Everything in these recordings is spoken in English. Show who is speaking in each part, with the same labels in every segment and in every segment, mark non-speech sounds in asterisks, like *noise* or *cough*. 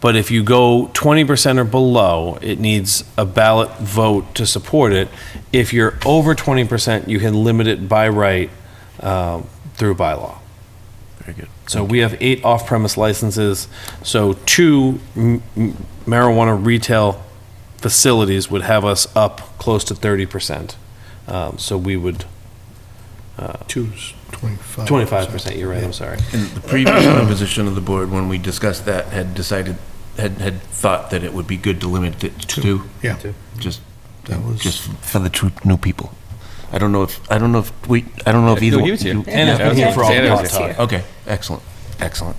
Speaker 1: But if you go 20% or below, it needs a ballot vote to support it. If you're over 20%, you can limit it by right uh, through bylaw.
Speaker 2: Very good.
Speaker 1: So we have eight off-premise licenses, so two m- m- marijuana retail facilities would have us up close to 30%. Um, So we would,
Speaker 3: Two's 25.
Speaker 1: 25%, you're right, I'm sorry.
Speaker 2: And the previous *coughs* composition of the board, when we discussed that, had decided, had, had thought that it would be good to limit it to two,
Speaker 3: Yeah,
Speaker 2: just,
Speaker 3: that was.
Speaker 2: just for the two new people. I don't know if, I don't know if we, I don't know if either.
Speaker 4: We'll give it to you.
Speaker 1: And it's been here for
Speaker 4: Yeah,
Speaker 1: a
Speaker 4: it
Speaker 1: long
Speaker 4: was
Speaker 1: time.
Speaker 2: Okay, excellent, excellent.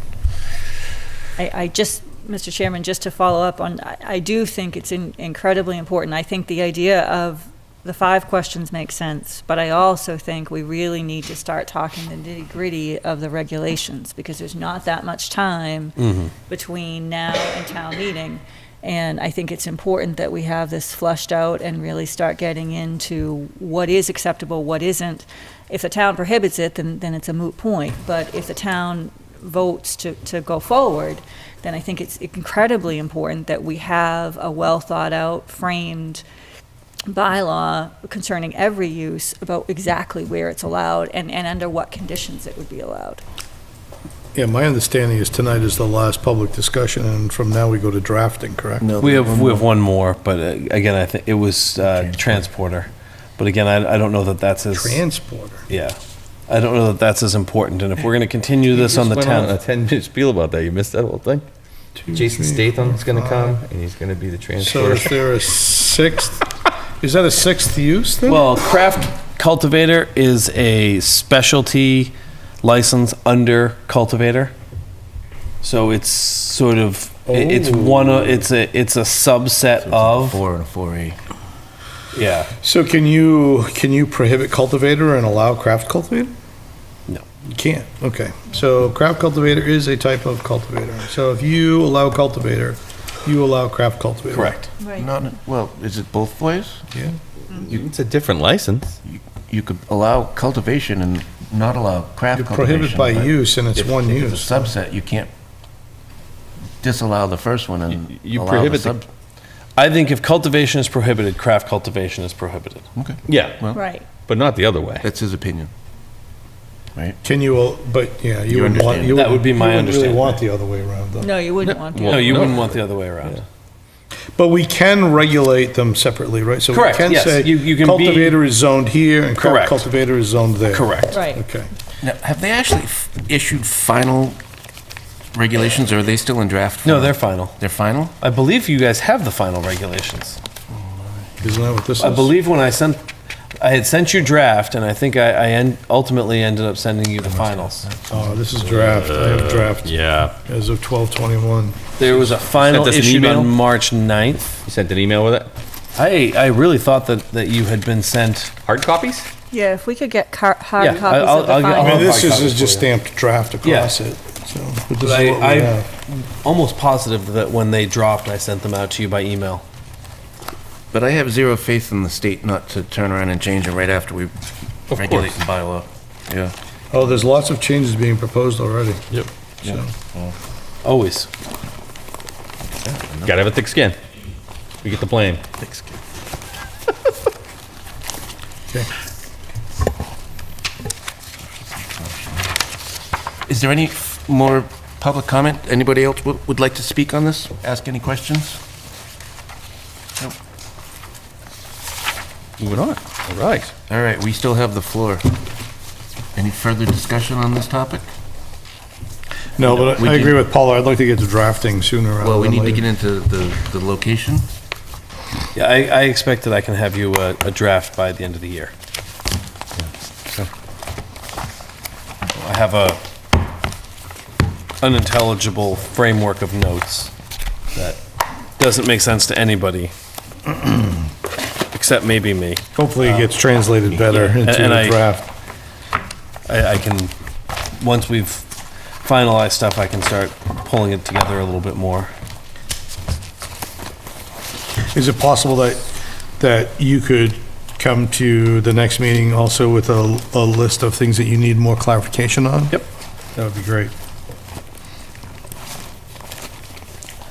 Speaker 5: I, I just, Mr. Chairman, just to follow up on, I, I do think it's in- incredibly important. I think the idea of the five questions makes sense, but I also think we really need to start talking the nitty gritty of the regulations because there's not that much time between now and town meeting. And I think it's important that we have this flushed out and really start getting into what is acceptable, what isn't. If the town prohibits it, then, then it's a moot point. But if the town votes to, to go forward, then I think it's incredibly important that we have a well-thought-out, framed bylaw concerning every use about exactly where it's allowed and, and under what conditions it would be allowed.
Speaker 3: Yeah, my understanding is tonight is the last public discussion, and from now we go to drafting, correct?
Speaker 1: We have, we have one more, but uh, again, I think, it was uh, transporter. But again, I, I don't know that that's as.
Speaker 3: Transporter.
Speaker 1: Yeah. I don't know that that's as important, and if we're going to continue this on the
Speaker 4: Just went on
Speaker 1: 10th,
Speaker 4: A ten-minute spiel about that. You missed that whole thing. Hmm. Jason Statham's gonna come and he's gonna be the
Speaker 3: So
Speaker 4: transporter.
Speaker 3: is there a sixth, is that a sixth use then?
Speaker 1: well, craft cultivator is a specialty license under cultivator. So it's sort of, it- it's one, of it's a, it's a subset of,
Speaker 2: Four and Oh. a four A.
Speaker 1: yeah,
Speaker 3: So can you, can you prohibit cultivator and allow craft cultivator?
Speaker 1: No.
Speaker 3: You can't, okay. So craft cultivator is a type of cultivator. So if you allow cultivator, you allow craft cultivator.
Speaker 1: correct.
Speaker 5: Right.
Speaker 2: Not, well, is it both ways?
Speaker 3: Yeah.
Speaker 4: It's a different license.
Speaker 2: You could allow cultivation and not allow
Speaker 3: You're
Speaker 2: craft cultivation.
Speaker 3: prohibited by
Speaker 2: but
Speaker 3: use, and it's
Speaker 2: if-
Speaker 3: one
Speaker 2: if
Speaker 3: use.
Speaker 2: it's a subset, you can't disallow the first one and
Speaker 4: You
Speaker 2: allow the
Speaker 4: prohibit the-
Speaker 2: sub.
Speaker 1: I think if cultivation is prohibited, craft cultivation is prohibited.
Speaker 2: Okay,
Speaker 4: Yeah,
Speaker 5: Right.
Speaker 4: but not the other way.
Speaker 2: that's his opinion. Right?
Speaker 3: Can you, al- but, yeah, you
Speaker 2: You
Speaker 3: wouldn't want.
Speaker 2: understand.
Speaker 3: you
Speaker 1: That would be
Speaker 3: you
Speaker 1: my
Speaker 3: wouldn't
Speaker 1: understanding.
Speaker 3: really want the other way around, though.
Speaker 5: No, you wouldn't want
Speaker 1: No,
Speaker 5: to.
Speaker 4: Well-
Speaker 1: you
Speaker 4: no.
Speaker 1: wouldn't want the other way around.
Speaker 3: But we can regulate them separately, right?
Speaker 1: Correct,
Speaker 3: So we can
Speaker 1: yes.
Speaker 3: say
Speaker 1: You- you can be-
Speaker 3: cultivator is zoned here and
Speaker 1: Correct.
Speaker 3: crop cultivator is zoned there.
Speaker 1: Correct.
Speaker 5: Right.
Speaker 3: Okay.
Speaker 2: Now, have they actually f- issued final regulations, or are they still in draft?
Speaker 1: No,
Speaker 2: form?
Speaker 1: they're final.
Speaker 2: They're final?
Speaker 1: I believe you guys have the final regulations.
Speaker 3: Isn't that what this is?
Speaker 1: I believe when I sent, I had sent you draft, and I think I, I en- ultimately ended up sending you the finals.
Speaker 3: Oh, this is draft. I
Speaker 2: Uh,
Speaker 3: have draft
Speaker 4: Uh, Yeah.
Speaker 3: as of 1221.
Speaker 1: There was a final
Speaker 4: Sent us an
Speaker 1: issued
Speaker 4: email?
Speaker 1: on March 9th.
Speaker 4: You sent an email with it?
Speaker 1: I, I really thought that, that you had been sent.
Speaker 4: Hard copies?
Speaker 5: Yeah, if we could get car- hard
Speaker 1: Yeah,
Speaker 5: copies
Speaker 1: I'll-
Speaker 5: of the
Speaker 1: I'll get- I'll
Speaker 3: I mean,
Speaker 5: final.
Speaker 1: have
Speaker 3: this is is just stamped draft across it, so. but this is
Speaker 1: I-
Speaker 3: what we
Speaker 1: I-
Speaker 3: have.
Speaker 1: Almost positive that when they dropped, I sent them out to you by email.
Speaker 2: But I have zero faith in the state not to turn around and change it right after we regulate the bylaw. Yeah.
Speaker 3: Oh, there's lots of changes being proposed already.
Speaker 4: Yep.
Speaker 3: So,
Speaker 1: Always.
Speaker 4: Gotta have a thick skin. We get the blame.
Speaker 3: okay.
Speaker 2: Is there any f- more public comment? Anybody else wo- would like to speak on this? Ask any questions?
Speaker 4: Moving on. All right.
Speaker 2: All right, we still have the floor. Any further discussion on this topic?
Speaker 3: No, but
Speaker 2: We
Speaker 3: I- I
Speaker 2: can-
Speaker 3: agree with Paula. I'd like to get to drafting sooner
Speaker 2: Well,
Speaker 3: rather
Speaker 2: we
Speaker 3: than
Speaker 2: need to get
Speaker 3: later.
Speaker 2: into the, the location.
Speaker 1: Yeah, I, I expect that I can have you uh, a, a draft by the end of the year. I have a unintelligible framework of notes that doesn't make sense to anybody, except maybe me.
Speaker 3: Hopefully it gets
Speaker 2: Uh,
Speaker 3: translated better into
Speaker 1: and I-
Speaker 3: a draft.
Speaker 1: I, I can, once we've finalized stuff, I can start pulling it together a little bit more.
Speaker 3: Is it possible that, that you could come to the next meeting also with a, a list of things that you need more clarification on?
Speaker 1: Yep.
Speaker 3: That would be great.